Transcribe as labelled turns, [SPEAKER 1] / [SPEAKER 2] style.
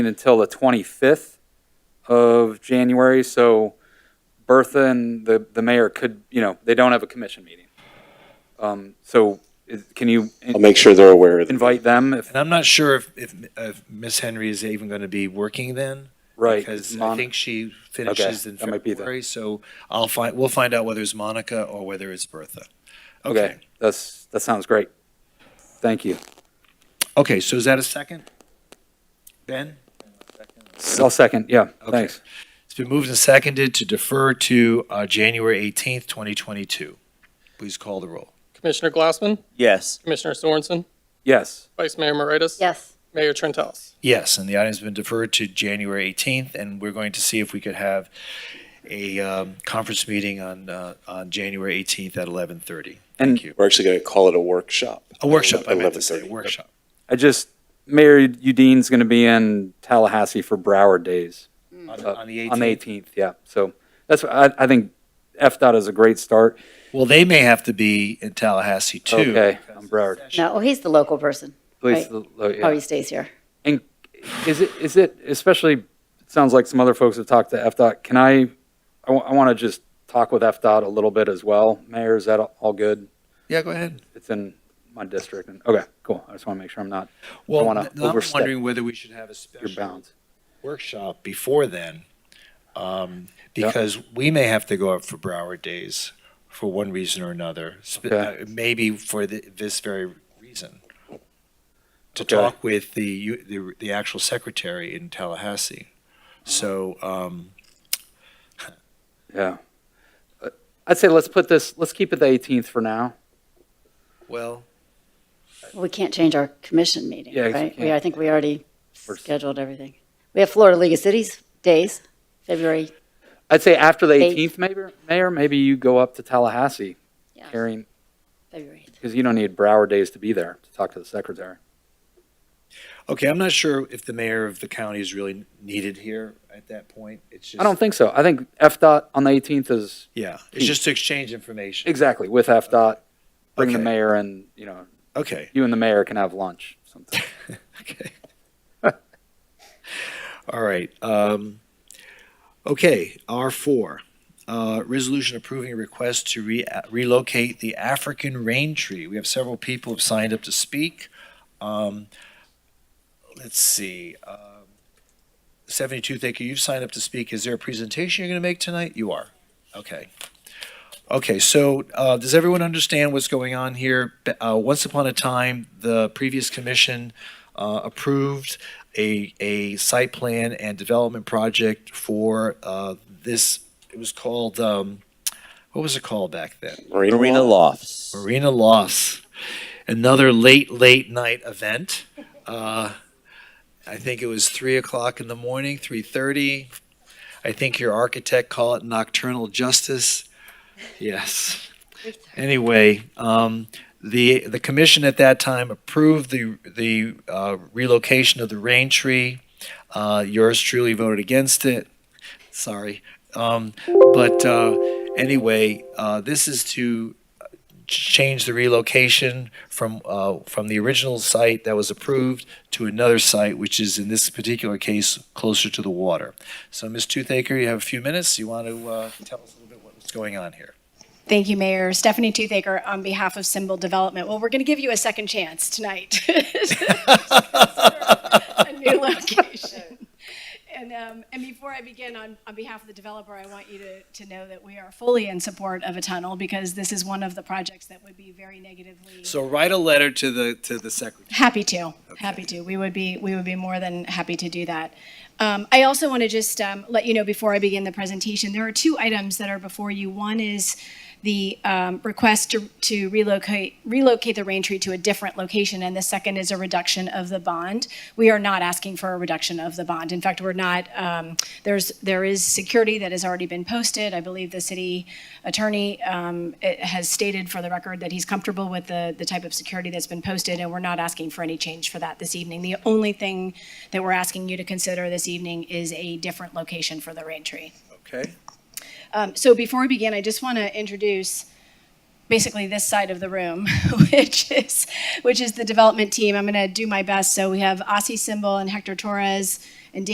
[SPEAKER 1] until the 25th of January, so Bertha and the, the mayor could, you know, they don't have a commission meeting. Um, So is- can you
[SPEAKER 2] I'll make sure they're aware of it.
[SPEAKER 1] invite them if,
[SPEAKER 3] And I'm not sure if, if, if Ms. Henry is even going to be working then.
[SPEAKER 1] right?
[SPEAKER 3] Because I
[SPEAKER 1] Mon-
[SPEAKER 3] think she finishes in
[SPEAKER 1] that might be the-
[SPEAKER 3] February, so I'll find, we'll find out whether it's Monica or whether it's Bertha.
[SPEAKER 1] Okay,
[SPEAKER 3] Okay,
[SPEAKER 1] that's, that sounds great. Thank you.
[SPEAKER 3] okay, so is that a second? Ben?
[SPEAKER 1] I'll second, yeah,
[SPEAKER 3] Okay.
[SPEAKER 1] thanks.
[SPEAKER 3] It's been moved and seconded to defer to, uh, January 18th, 2022. Please call the roll.
[SPEAKER 4] Commissioner Glassman,
[SPEAKER 5] Yes.
[SPEAKER 4] Commissioner Sorensen,
[SPEAKER 1] Yes,
[SPEAKER 4] Vice Mayor Moritas.
[SPEAKER 6] Yes,
[SPEAKER 4] Mayor Trentalles.
[SPEAKER 3] Yes, and the item's been deferred to January 18th, and we're going to see if we could have a, um, conference meeting on, uh, on January 18th at 11:30.
[SPEAKER 1] And-
[SPEAKER 3] Thank you.
[SPEAKER 2] We're actually going to call it a workshop.
[SPEAKER 3] A workshop, I meant to
[SPEAKER 2] 11:30.
[SPEAKER 3] say,
[SPEAKER 2] Yep.
[SPEAKER 3] workshop.
[SPEAKER 1] I just, Mayor Udine's going to be in Tallahassee for Broward Days.
[SPEAKER 3] On
[SPEAKER 1] uh,
[SPEAKER 3] on the
[SPEAKER 1] On the
[SPEAKER 3] 18th.
[SPEAKER 1] 18th, yeah. So that's, I, I think FDOT is a great start.
[SPEAKER 3] Well, they may have to be in Tallahassee too.
[SPEAKER 1] Okay, I'm Broward.
[SPEAKER 6] no, he's the local person.
[SPEAKER 1] Please,
[SPEAKER 6] Right.
[SPEAKER 1] uh, yeah.
[SPEAKER 6] Oh, he stays here.
[SPEAKER 1] Is it, is it, especially, it sounds like some other folks have talked to FDOT, can I, I, want to just talk with FDOT a little bit as well. Mayor, is that all good?
[SPEAKER 3] Yeah, go ahead.
[SPEAKER 1] It's in my district, and, okay, cool. I just want to make sure I'm not
[SPEAKER 3] Well,
[SPEAKER 1] wanna
[SPEAKER 3] th- I'm
[SPEAKER 1] overstep
[SPEAKER 3] wondering whether we should have a
[SPEAKER 1] your
[SPEAKER 3] special
[SPEAKER 1] bounds.
[SPEAKER 3] workshop before then. Um,
[SPEAKER 1] Yeah.
[SPEAKER 3] because we may have to go up for Broward Days for one reason or another, sp-
[SPEAKER 1] Okay.
[SPEAKER 3] uh, maybe for the, this very reason. To
[SPEAKER 1] Okay.
[SPEAKER 3] talk with the, u- the, the actual secretary in Tallahassee. So, um,
[SPEAKER 1] Yeah. Uh, I'd say let's put this, let's keep it the 18th for now.
[SPEAKER 3] well,
[SPEAKER 6] We can't change our commission meeting,
[SPEAKER 1] Yeah, you
[SPEAKER 6] right? We,
[SPEAKER 1] can't.
[SPEAKER 6] I think we already
[SPEAKER 1] We're-
[SPEAKER 6] scheduled everything. We have Florida League of Cities days, February.
[SPEAKER 1] I'd say after the
[SPEAKER 6] Eight.
[SPEAKER 1] 18th, maybe, Mayor, maybe you go up to Tallahassee
[SPEAKER 6] yeah,
[SPEAKER 1] carrying,
[SPEAKER 6] February.
[SPEAKER 1] because you don't need Broward Days to be there to talk to the secretary.
[SPEAKER 3] okay, I'm not sure if the mayor of the county is really needed here at that point. It's just.
[SPEAKER 1] I don't think so. I think FDOT on the 18th is,
[SPEAKER 3] Yeah, it's just to exchange information.
[SPEAKER 1] exactly, with FDOT, bring the
[SPEAKER 3] Okay.
[SPEAKER 1] mayor and, you know,
[SPEAKER 3] Okay,
[SPEAKER 1] you and the mayor can have lunch sometime.
[SPEAKER 3] okay. All right. um, Okay, R4, uh, resolution approving a request to re- relocate the African rain tree. We have several people have signed up to speak. Um, Let's see. um, 72 Thaker, you've signed up to speak. Is there a presentation you're going to make tonight? You are. Okay. Okay, so uh, does everyone understand what's going on here? B- uh, Once upon a time, the previous commission uh, approved a, a site plan and development project for uh, this, it was called, um, what was it called back then?
[SPEAKER 5] Marina Lofts.
[SPEAKER 3] Marina Loss, another late, late night event. Uh, I think it was three o'clock in the morning, three thirty. I think your architect called it nocturnal justice. Yes. Anyway, um, the the commission at that time approved the the uh, relocation of the rain tree. Uh, yours truly voted against it. Sorry, um, but uh, anyway, uh, this is to change the relocation from, uh, from the original site that was approved to another site, which is in this particular case closer to the water. So Ms. Toothaker, you have a few minutes. You want to, uh, tell us a little bit what's going on here?
[SPEAKER 7] Thank you, Mayor. Stephanie Toothaker on behalf of Symbol Development. Well, we're going to give you a second chance tonight. a new location. And, um, and before I begin, on, on behalf of the developer, I want you to, to know that we are fully in support of a tunnel because this is one of the projects that would be very negatively.
[SPEAKER 3] So write a letter to the, to the secretary.
[SPEAKER 7] Happy to, happy to. We would be, we would be more than happy to do that. Um, I also want to just um, let you know before I begin the presentation, there are two items that are before you. One is the um, request to, to relocate relocate the rain tree to a different location, and the second is a reduction of the bond. We are not asking for a reduction of the bond. In fact, we're not. Um, there's there is security that has already been posted. I believe the city attorney um, it has stated for the record that he's comfortable with the the type of security that's been posted, and we're not asking for any change for that this evening. The only thing that we're asking you to consider this evening is a different location for the rain tree.
[SPEAKER 3] Okay.
[SPEAKER 7] Um, so before we begin, I just want to introduce basically this side of the room, which is which is the development team. I'm going to do my best. So we have Ossie Symbol and Hector Torres,